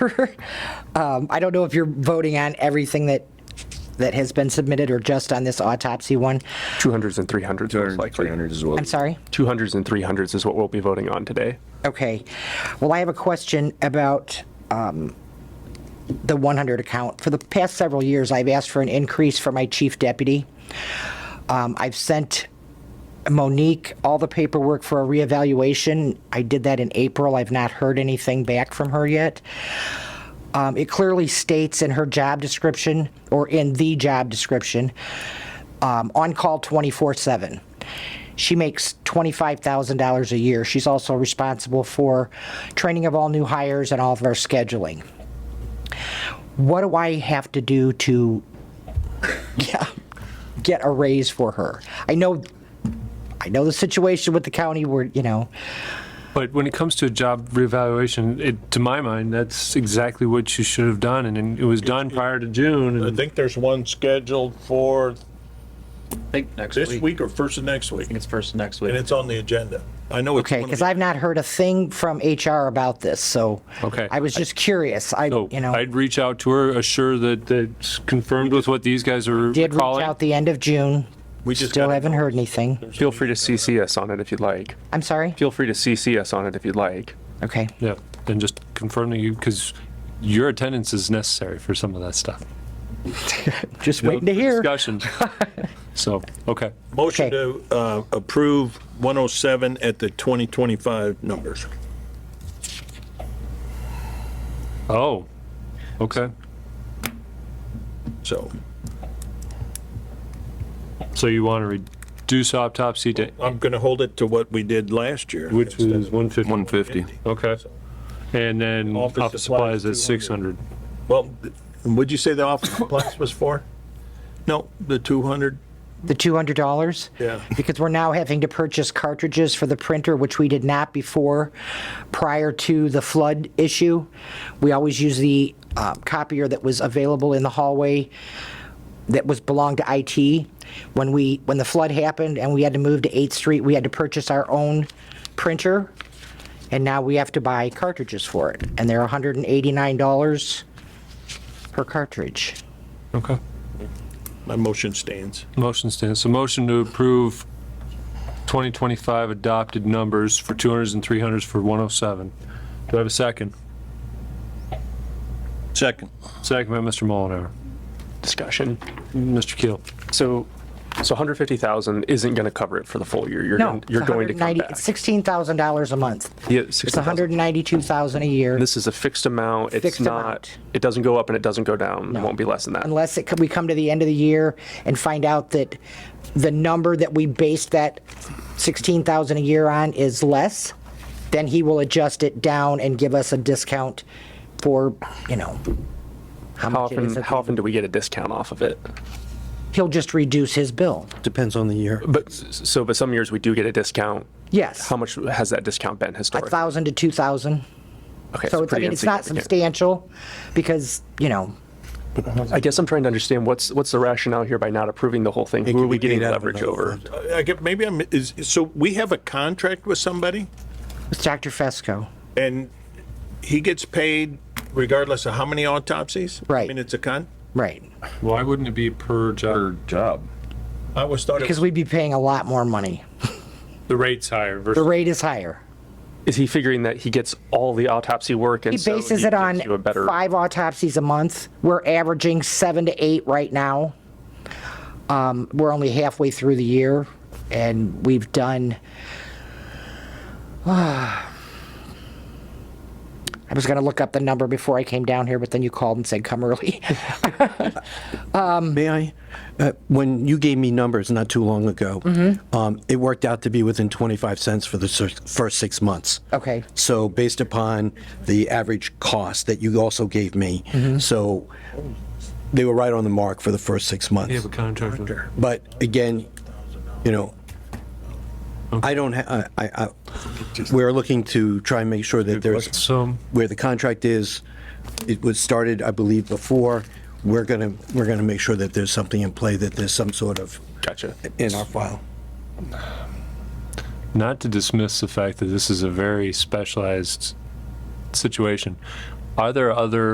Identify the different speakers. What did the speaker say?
Speaker 1: Um, I don't know if you're voting on everything that, that has been submitted or just on this autopsy one.
Speaker 2: 200s and 300s, most
Speaker 3: 200,
Speaker 2: likely.
Speaker 3: 300 as well.
Speaker 1: I'm sorry?
Speaker 2: 200s and 300s is what we'll be voting on today.
Speaker 1: Okay. Well, I have a question about um, the 100 account. For the past several years, I've asked for an increase for my chief deputy. Um, I've sent Monique all the paperwork for a reevaluation. I did that in April. I've not heard anything back from her yet. Um, It clearly states in her job description, or in the job description, um, on call 24 7. She makes $25,000 a year. She's also responsible for training of all new hires and all of our scheduling. What do I have to do to yeah, get a raise for her? I know. I know the situation with the county where, you know,
Speaker 4: But when it comes to a job reevaluation, it, to my mind, that's exactly what you should have done, and- and it was done prior to June.
Speaker 5: I
Speaker 4: and-
Speaker 5: think there's one scheduled for
Speaker 6: think next
Speaker 5: this
Speaker 6: week. I
Speaker 5: week or first of next week,
Speaker 6: think it's first next
Speaker 5: and
Speaker 6: week.
Speaker 5: it's on the agenda. I know it's
Speaker 1: okay,
Speaker 5: one of
Speaker 1: because
Speaker 5: the-
Speaker 1: I've not heard a thing from HR about this. So
Speaker 4: Okay.
Speaker 1: I was just curious. I,
Speaker 4: So
Speaker 1: you know,
Speaker 4: oh, I'd reach out to her, assure that, that's confirmed with what these guys are
Speaker 1: did reach
Speaker 4: calling.
Speaker 1: out the end of June.
Speaker 5: We just
Speaker 1: Still
Speaker 5: got a
Speaker 1: haven't heard anything.
Speaker 2: Feel free to CC us on it if you'd like.
Speaker 1: I'm sorry?
Speaker 2: Feel free to CC us on it if you'd like.
Speaker 1: Okay.
Speaker 4: Yeah, and just confirm that you, because your attendance is necessary for some of that stuff.
Speaker 1: Just waiting to hear.
Speaker 4: Discussion. So, okay.
Speaker 5: Motion
Speaker 1: Okay.
Speaker 5: to uh, approve 107 at the 2025 numbers.
Speaker 4: Oh, okay.
Speaker 5: So
Speaker 4: So you want to reduce autopsy to,
Speaker 5: I'm going to hold it to what we did last year.
Speaker 4: which was 150?
Speaker 3: 150.
Speaker 4: Okay. And then
Speaker 5: Office
Speaker 4: office
Speaker 5: supplies,
Speaker 4: supplies at
Speaker 5: 200.
Speaker 4: 600.
Speaker 5: Well, would you say the office supplies was for? No, the 200?
Speaker 1: The $200?
Speaker 5: Yeah.
Speaker 1: Because we're now having to purchase cartridges for the printer, which we did not before, prior to the flood issue. We always use the uh, copier that was available in the hallway that was, belonged to IT. When we, when the flood happened and we had to move to 8th Street, we had to purchase our own printer, and now we have to buy cartridges for it, and they're $189 per cartridge.
Speaker 4: Okay.
Speaker 5: My motion stands.
Speaker 4: Motion stands. So motion to approve 2025 adopted numbers for 200s and 300s for 107. Do I have a second?
Speaker 5: Second.
Speaker 4: Second by Mr. Mullenhour.
Speaker 2: Discussion.
Speaker 4: Mr. Keel.
Speaker 2: So, so 150,000 isn't going to cover it for the full year. You're,
Speaker 1: No,
Speaker 2: gonna- you're
Speaker 1: it's
Speaker 2: going to come
Speaker 1: 190
Speaker 2: back.
Speaker 1: It's $16,000 a month.
Speaker 2: Yeah,
Speaker 1: It's
Speaker 2: 60,000.
Speaker 1: 192,000 a year,
Speaker 2: This is a fixed amount. It's
Speaker 1: Fixed
Speaker 2: not,
Speaker 1: amount.
Speaker 2: it doesn't go up and it doesn't go down. It won't be less than that.
Speaker 1: unless it, could- we come to the end of the year and find out that the number that we based that 16,000 a year on is less, then he will adjust it down and give us a discount for, you know, how
Speaker 2: How
Speaker 1: much it
Speaker 2: often,
Speaker 1: is. at
Speaker 2: how
Speaker 1: the-
Speaker 2: often do we get a discount off of it?
Speaker 1: He'll just reduce his bill.
Speaker 7: Depends on the year.
Speaker 2: But, s- so, but some years we do get a discount.
Speaker 1: Yes,
Speaker 2: How much has that discount been
Speaker 1: a
Speaker 2: historically?
Speaker 1: 1,000 to 2,000.
Speaker 2: Okay,
Speaker 1: So it's, I
Speaker 2: pretty
Speaker 1: mean, it's not
Speaker 2: insignificant.
Speaker 1: substantial because, you know,
Speaker 2: I guess I'm trying to understand what's, what's the rationale here by not approving the whole thing? Who are we getting leverage over?
Speaker 5: I get, maybe I'm, is, so we have a contract with somebody?
Speaker 1: it's Dr. Fesco.
Speaker 5: And he gets paid regardless of how many autopsies?
Speaker 1: Right.
Speaker 5: I mean, it's a con,
Speaker 1: Right.
Speaker 4: Why wouldn't it be per job?
Speaker 3: Job.
Speaker 5: I was started.
Speaker 1: Because we'd be paying a lot more money.
Speaker 4: The rate's higher
Speaker 1: The
Speaker 4: versus.
Speaker 1: rate is higher.
Speaker 2: Is he figuring that he gets all the autopsy work and
Speaker 1: He
Speaker 2: so
Speaker 1: bases
Speaker 2: he
Speaker 1: it on
Speaker 2: gives you a better?
Speaker 1: five autopsies a month. We're averaging seven to eight right now. Um, we're only halfway through the year, and we've done. I was going to look up the number before I came down here, but then you called and said come early.
Speaker 7: May I? Uh, When you gave me numbers not too long ago, um, it worked out to be within 25 cents for the sir- first six months.
Speaker 1: okay.
Speaker 7: So based upon the average cost that you also gave me, so they were right on the mark for the first six months.
Speaker 4: You have a contractor.
Speaker 7: But again, you know, I don't, ha- I, I, I- we're looking to try and make sure that there's,
Speaker 4: So,
Speaker 7: where the contract is, it was started, I believe, before. We're gonna, we're gonna make sure that there's something in play, that there's some sort of,
Speaker 2: Gotcha.
Speaker 7: in our file.
Speaker 4: not to dismiss the fact that this is a very specialized situation, Are there other